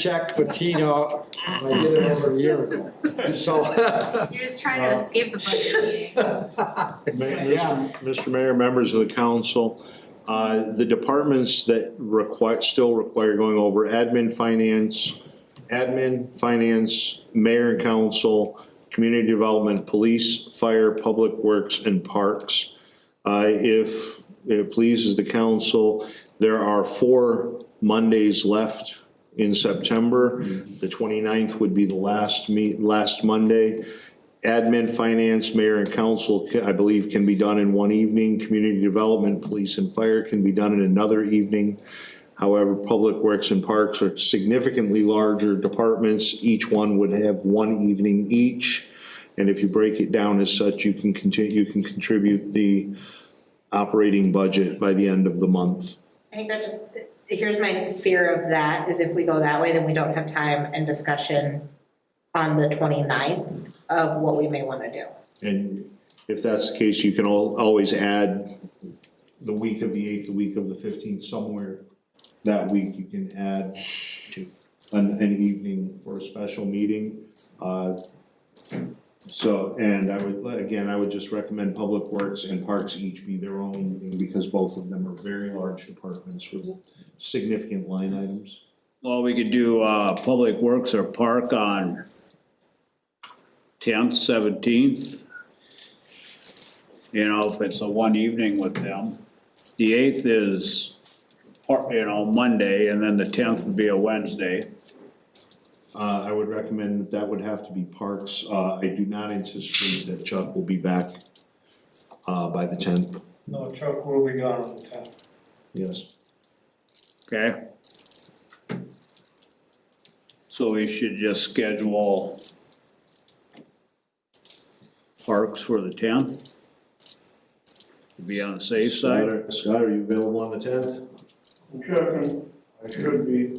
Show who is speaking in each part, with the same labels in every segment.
Speaker 1: check Patino, I did it over a year ago, so.
Speaker 2: You're just trying to escape the budget meeting.
Speaker 3: Ma-
Speaker 1: Yeah.
Speaker 3: Mr. Mr. Mayor, members of the council, uh, the departments that require, still require going over admin, finance, admin, finance, mayor and council, community development, police, fire, public works, and parks. Uh, if it pleases the council, there are four Mondays left in September. The 29th would be the last meet, last Monday. Admin, finance, mayor and council, ca- I believe, can be done in one evening. Community development, police and fire can be done in another evening. However, public works and parks are significantly larger departments. Each one would have one evening each. And if you break it down as such, you can continue, you can contribute the operating budget by the end of the month.
Speaker 4: I think that just, here's my fear of that, is if we go that way, then we don't have time and discussion on the 29th of what we may wanna do.
Speaker 3: And if that's the case, you can al- always add the week of the eighth, the week of the fifteenth, somewhere that week, you can add to an, an evening for a special meeting. Uh, So, and I would, again, I would just recommend Public Works and Parks each be their own, because both of them are very large departments with significant line items.
Speaker 5: Well, we could do, uh, Public Works or Park on tenth, seventeenth. You know, if it's a one evening with them. The eighth is, par- you know, Monday, and then the tenth would be a Wednesday.
Speaker 3: Uh, I would recommend that that would have to be Parks. Uh, I do not anticipate that Chuck will be back, uh, by the tenth.
Speaker 6: No, Chuck will be gone on the tenth.
Speaker 3: Yes.
Speaker 5: Okay. So we should just schedule parks for the tenth. To be on the safe
Speaker 3: Scott,
Speaker 5: side.
Speaker 3: are- Scott, are you available on the tenth?
Speaker 6: I'm checking, I should be,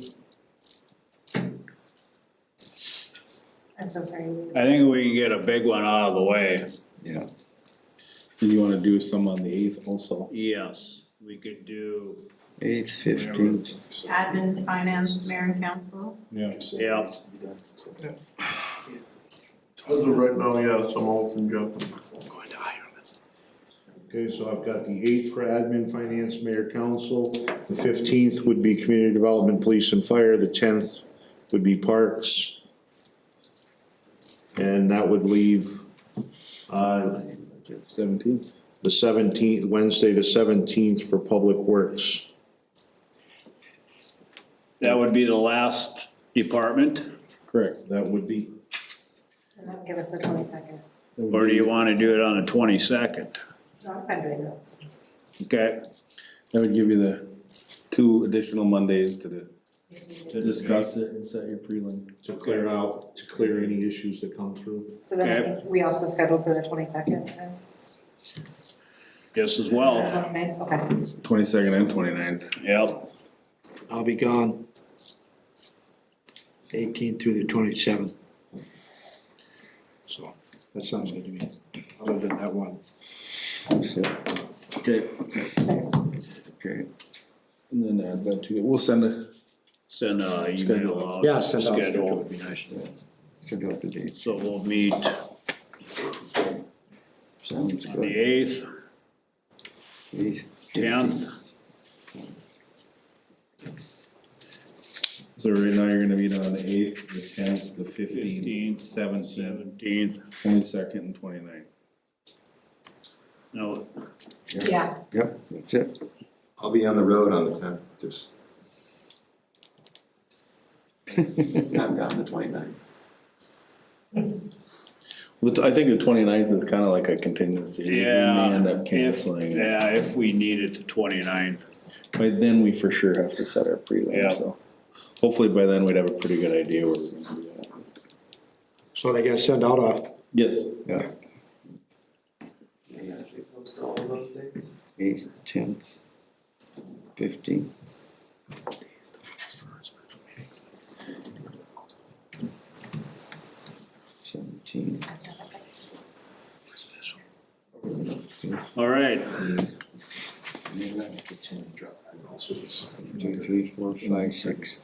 Speaker 4: I'm so sorry.
Speaker 5: I think we can get a big one out of the way.
Speaker 7: Yeah. And you wanna do some on the eighth also?
Speaker 5: Yes, we could do,
Speaker 7: Eighth, fifteenth.
Speaker 2: Admin, finance, mayor and council.
Speaker 7: Yeah.
Speaker 5: yeah,
Speaker 6: as of right now, yes, I'm open, jumping.
Speaker 3: Okay, so I've got the eighth for admin, finance, mayor, council. The fifteenth would be community development, police and fire. The tenth would be parks. And that would leave, uh,
Speaker 7: Seventeenth.
Speaker 3: the seventeenth, Wednesday, the seventeenth for public works.
Speaker 5: that would be the last department,
Speaker 7: Correct.
Speaker 3: That would be.
Speaker 4: Give us the 22nd.
Speaker 5: or do you wanna do it on the twenty-second?
Speaker 4: No, I'm doing that.
Speaker 5: Okay,
Speaker 7: That would give you the two additional Mondays to the- to discuss it and set your prelim.
Speaker 3: to clear out, to clear any issues that come through.
Speaker 4: So then I
Speaker 5: Okay.
Speaker 4: think we also scheduled for the 22nd and
Speaker 5: just as well,
Speaker 4: 29th, okay.
Speaker 7: Twenty-second and twenty-ninth.
Speaker 5: yep,
Speaker 1: I'll be gone. Eighteen through the twenty-seventh. So, that sounds good to me, other than that one.
Speaker 7: Okay. Okay. And then add that to, it. we'll send a.
Speaker 5: send a email out.
Speaker 1: Yeah, send out a schedule
Speaker 5: schedule.
Speaker 1: would be nice.
Speaker 7: Schedule the dates.
Speaker 5: So we'll meet on
Speaker 7: Sounds
Speaker 5: the eighth,
Speaker 7: Eighth.
Speaker 5: tenth,
Speaker 7: So right now you're gonna meet on the eighth, the tenth, the fifteenth,
Speaker 5: Fifteenth,
Speaker 7: seventeenth,
Speaker 5: seventeenth,
Speaker 7: twenty-second and twenty-ninth.
Speaker 5: no,
Speaker 4: Yeah,
Speaker 8: Yep, that's it.
Speaker 9: I'll be on the road on the tenth, just not on the twenty-ninth.
Speaker 7: I think the twenty-ninth is kinda like a contingency. We
Speaker 5: Yeah,
Speaker 7: may end up
Speaker 5: if-
Speaker 7: canceling.
Speaker 5: yeah, if we need it the twenty-ninth,
Speaker 7: By then, we for sure have to set our
Speaker 5: Yeah.
Speaker 7: prelim, so hopefully by then we'd have a pretty good idea where we're gonna do that.
Speaker 1: So they gotta send out a,
Speaker 7: Yes.
Speaker 8: Yeah, eighth, tenth, fifteenth. Seventeen.
Speaker 5: all right,
Speaker 8: Two, three, four, five, six,